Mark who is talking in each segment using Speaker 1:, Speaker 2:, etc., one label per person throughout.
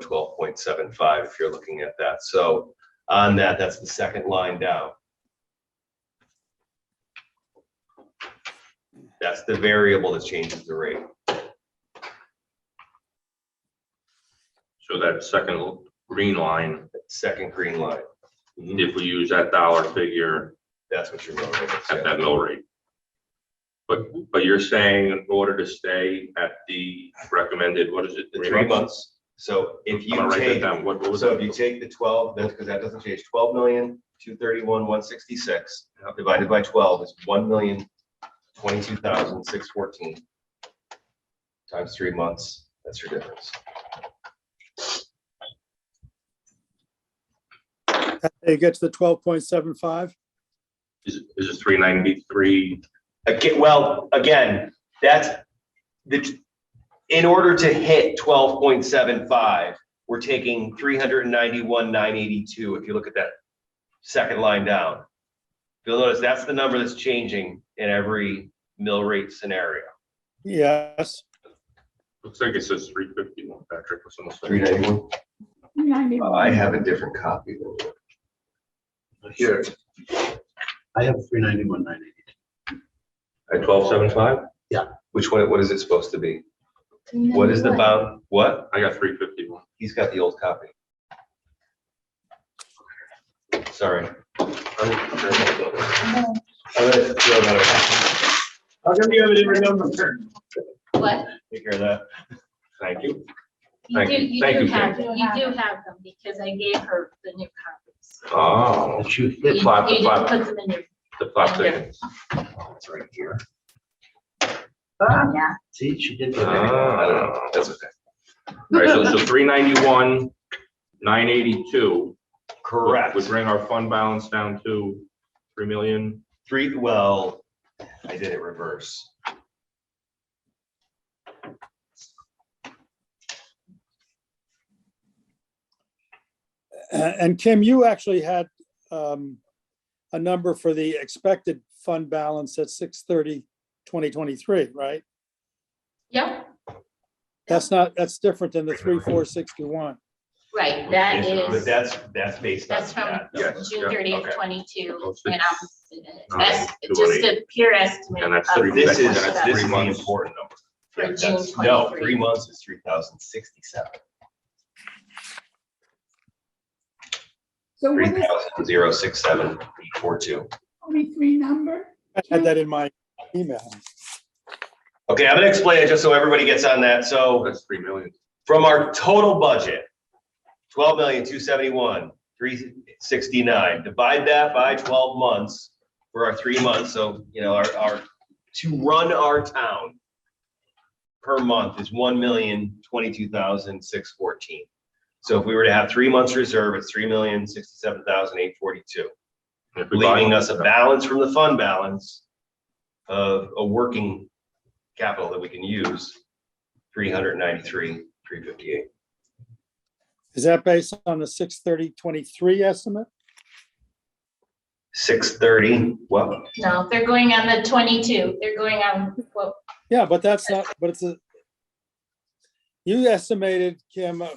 Speaker 1: twelve point seven five, if you're looking at that. So on that, that's the second line down. That's the variable that changes the rate.
Speaker 2: So that second green line,
Speaker 1: That Second green line,
Speaker 2: if we use that dollar figure
Speaker 1: that's what you're going
Speaker 2: at
Speaker 1: with.
Speaker 2: that mill rate. But, but you're saying in order to stay at the recommended, what is it?
Speaker 1: The three months. So if
Speaker 2: I'm gonna
Speaker 1: you
Speaker 2: write that
Speaker 1: take,
Speaker 2: down. What, what was
Speaker 1: so if you
Speaker 2: that?
Speaker 1: take the twelve, that's because that doesn't change, twelve million, two thirty-one, one sixty-six,
Speaker 2: Yep.
Speaker 1: divided by twelve is one million, twenty-two thousand, six fourteen. Times three months, that's your difference.
Speaker 3: It gets to twelve point seven five.
Speaker 2: Is, it- is it three ninety-three?
Speaker 1: Again, well, again, that's the, in order to hit twelve point seven five, we're taking three hundred and ninety-one, nine eighty-two, if you look at that second line down. You'll notice that's the number that's changing in every mill rate scenario.
Speaker 3: Yes,
Speaker 2: Looks like it says three fifty-one, Patrick. was almost like-
Speaker 1: ninety-one? Uh, I
Speaker 4: 91.
Speaker 1: have a different copy. than-
Speaker 5: Here. I have three ninety-one, nine eighty.
Speaker 2: At twelve seven five?
Speaker 1: Which one, what is it supposed to be? What is the bound, what?
Speaker 2: I got three fifty-one.
Speaker 1: He's got the old copy. Sorry. I'm gonna throw that
Speaker 5: How come you have a different number?
Speaker 6: What?
Speaker 1: away. Take care of that.
Speaker 2: Thank you.
Speaker 6: You
Speaker 2: Thank
Speaker 6: do,
Speaker 2: you.
Speaker 6: you
Speaker 2: Thank
Speaker 6: do
Speaker 2: you,
Speaker 6: have,
Speaker 4: Jen.
Speaker 6: you do have them because I gave her the new copies.
Speaker 2: Oh,
Speaker 5: That you
Speaker 6: You
Speaker 5: hit.
Speaker 6: you
Speaker 2: five- the
Speaker 6: just
Speaker 2: five-
Speaker 6: put them in your,
Speaker 2: the five seconds.
Speaker 1: It's right here.
Speaker 5: Ah,
Speaker 6: yeah.
Speaker 5: See, she did.
Speaker 1: Okay,
Speaker 5: that.
Speaker 1: I don't know, that's okay.
Speaker 2: All right, so, so three ninety-one, nine eighty-two.
Speaker 1: Correct.
Speaker 2: Would bring our fund balance down to three million.
Speaker 1: Three, well, I did it reverse.
Speaker 3: A- and Kim, you actually had um, a number for the expected fund balance at 2023, right?
Speaker 6: Yep,
Speaker 3: That's not, that's different than the three, four, sixty-one.
Speaker 6: right, that
Speaker 1: But
Speaker 6: is,
Speaker 1: that's, that's based on
Speaker 6: that's from
Speaker 1: that.
Speaker 2: Yes, yeah,
Speaker 6: June thirtieth,
Speaker 2: okay.
Speaker 6: twenty-two,
Speaker 2: Oh,
Speaker 6: and
Speaker 2: six.
Speaker 6: I'm, that's
Speaker 2: two,
Speaker 6: just
Speaker 2: eight.
Speaker 6: a pure estimate.
Speaker 2: And that's
Speaker 6: of
Speaker 2: three
Speaker 6: what
Speaker 1: This is,
Speaker 2: That's
Speaker 6: that-
Speaker 1: this
Speaker 2: three
Speaker 1: is the
Speaker 2: months.
Speaker 1: important number.
Speaker 6: For
Speaker 1: Right,
Speaker 6: June
Speaker 1: that's- No,
Speaker 6: 23.
Speaker 1: three months is three thousand sixty-seven,
Speaker 4: So
Speaker 1: three
Speaker 4: what is
Speaker 1: thousand zero six seven eight four two.
Speaker 4: only three number?
Speaker 3: I had that in my email.
Speaker 1: Okay, I'm gonna explain it just so everybody gets on that. So
Speaker 2: That's three million.
Speaker 1: from our total budget, twelve million, two seventy-one, three sixty-nine, divide that by twelve months for our three months, so, you know, our, our, to run our town per month is one million, twenty-two thousand, six fourteen. So if we were to have three months reserve, it's three million, sixty-seven thousand, eight forty-two,
Speaker 2: If we buy-
Speaker 1: leaving us a balance from the fund balance of a working capital that we can use, three hundred ninety-three, three fifty-eight.
Speaker 3: Is that based on the 630-23 estimate?
Speaker 1: Six thirty, well,
Speaker 6: No, they're going on the twenty-two, they're going on what,
Speaker 3: Yeah, but that's not, but it's a. You estimated, Kim, uh,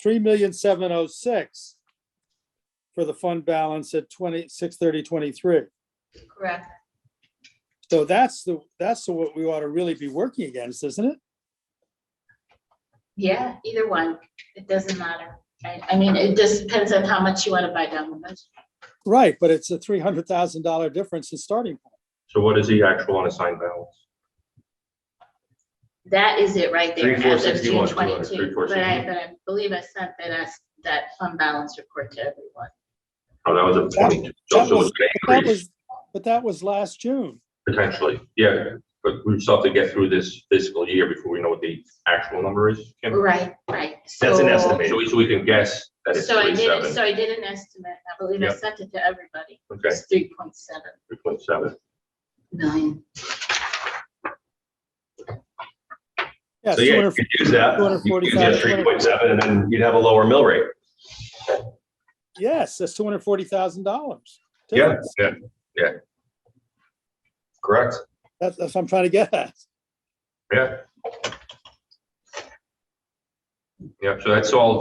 Speaker 3: three million seven oh six for the fund balance at twenty, six thirty twenty-three.
Speaker 6: correct,
Speaker 3: So that's the, that's the what we ought to really be working against, isn't it?
Speaker 6: yeah, either one, it doesn't matter. I, I mean, it just depends on how much you wanna buy down the budget.
Speaker 3: Right, but it's a three hundred thousand dollar difference in starting. point.
Speaker 2: So what is the actual unassigned balance?
Speaker 6: That is it right there.
Speaker 1: Three, four,
Speaker 6: as of June
Speaker 1: 61, 200,
Speaker 2: three,
Speaker 6: 22.
Speaker 2: four,
Speaker 6: But I,
Speaker 2: 61.
Speaker 6: but I believe I sent that, as that fund balance report to everyone.
Speaker 2: Oh, that was a twenty-two. So
Speaker 3: That
Speaker 2: so
Speaker 3: was-
Speaker 2: it's
Speaker 3: but
Speaker 2: gonna
Speaker 3: that
Speaker 2: increase
Speaker 3: was- But that was last June.
Speaker 2: potentially. Yeah, but we still have to get through this fiscal year before we know what the actual number is. Kim.
Speaker 6: Right, right.
Speaker 1: That's an
Speaker 6: So-
Speaker 1: estimate.
Speaker 2: So we, so we can guess that it's
Speaker 6: So I
Speaker 2: three
Speaker 6: did,
Speaker 2: seven.
Speaker 6: so I did an estimate. I believe I
Speaker 2: Yep.
Speaker 6: sent it to everybody.
Speaker 2: Okay,
Speaker 6: It's three point seven
Speaker 2: three point seven.
Speaker 6: million.
Speaker 3: Yeah,
Speaker 1: so yeah, you
Speaker 3: 200
Speaker 1: could use that.
Speaker 3: $245.
Speaker 1: Three point seven, and then you'd have a lower mill rate.
Speaker 3: yes, that's two hundred forty thousand dollars.
Speaker 1: Yeah. Correct.
Speaker 3: That's, that's what I'm trying to get at.
Speaker 2: Yeah. Yeah, so that's all